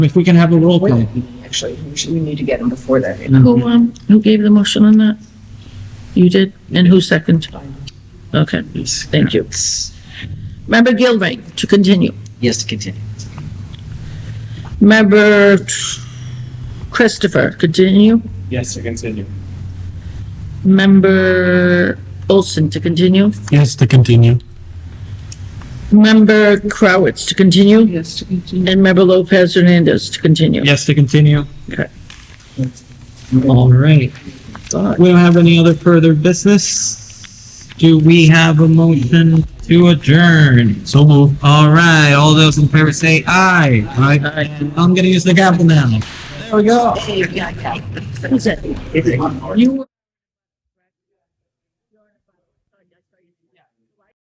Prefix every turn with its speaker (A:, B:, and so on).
A: If we can have a roll call.
B: Hmm.
C: Actually, we should, we need to get them before that.
D: Who, um, who gave the motion on that? You did? And who seconded? Okay, thank you. Member Gilvane, to continue.
B: Yes, to continue.
D: Member Christopher, continue.
E: Yes, to continue.
D: Member Olson, to continue.
A: Yes, to continue.
D: Member Crowitz, to continue.
C: Yes, to continue.
D: And Member Lopez Hernandez, to continue.
A: Yes, to continue.
D: Okay.
A: All right. We don't have any other further business. Do we have a motion to adjourn? So move. All right, all those in favor say aye.
D: Aye.
A: I'm gonna use the gavel now.
D: There we go. Who's that? You